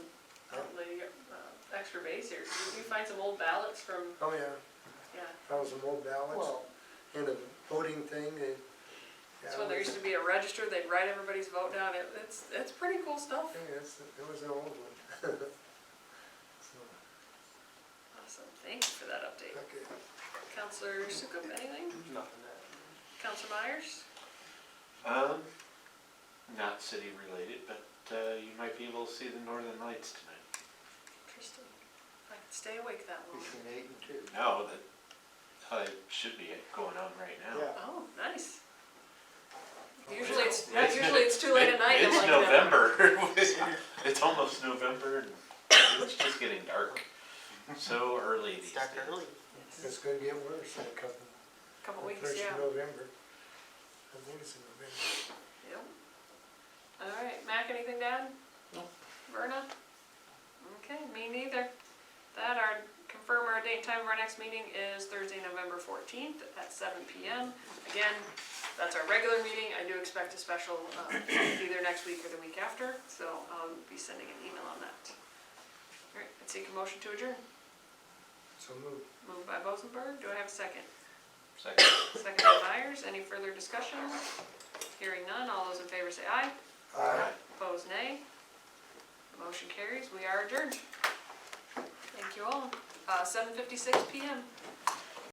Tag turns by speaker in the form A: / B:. A: uh, extra base here. Did you find some old ballots from,
B: Oh, yeah,
A: yeah,
B: that was an old ballot,
C: Well,
B: and a voting thing, and.
A: that's when there used to be a register, they'd write everybody's vote down. It- It's, it's pretty cool stuff.
B: Yeah, it's, it was an old one. So,
A: Awesome, thank you for that update.
B: Okay,
A: Counselor Sukup, anything?
C: nothing that.
A: Counselor Myers?
D: Um, not city related, but uh, you might be able to see the northern lights tonight.
A: Tristan? If I could stay awake that long.
C: Between eight and two.
D: No, that uh, should be going on right now.
C: Yeah.
A: Oh, nice. Usually it's,
D: It's
A: yeah,
D: mid-
A: usually it's too late at night. I'm
D: It's
A: like, no.
D: November. It's almost November and it's just getting dark. So early these
C: It's
D: days.
C: dark early.
B: it's gonna get worse in a couple,
A: Couple weeks,
B: first
A: yeah.
B: of November. I think it's in November.
A: Yep. All right, Mac, anything to add?
C: No.
A: Verna? Okay, me neither. That, our, confirm our date and time of our next meeting is Thursday, November fourteenth at seven P M. Again, that's our regular meeting, I do expect a special, um, either next week or the week after, so I'll be sending an email on that. All right, I'd seek a motion to adjourn.
B: So move.
A: Moved by Bosenberg, do I have a second?
D: Second.
A: Second by Myers, any further discussion? Hearing none, all those in favor say aye.
D: Aye.
A: Opposed, nay. Motion carries, we are adjourned. Thank you all. Uh, seven fifty-six PM.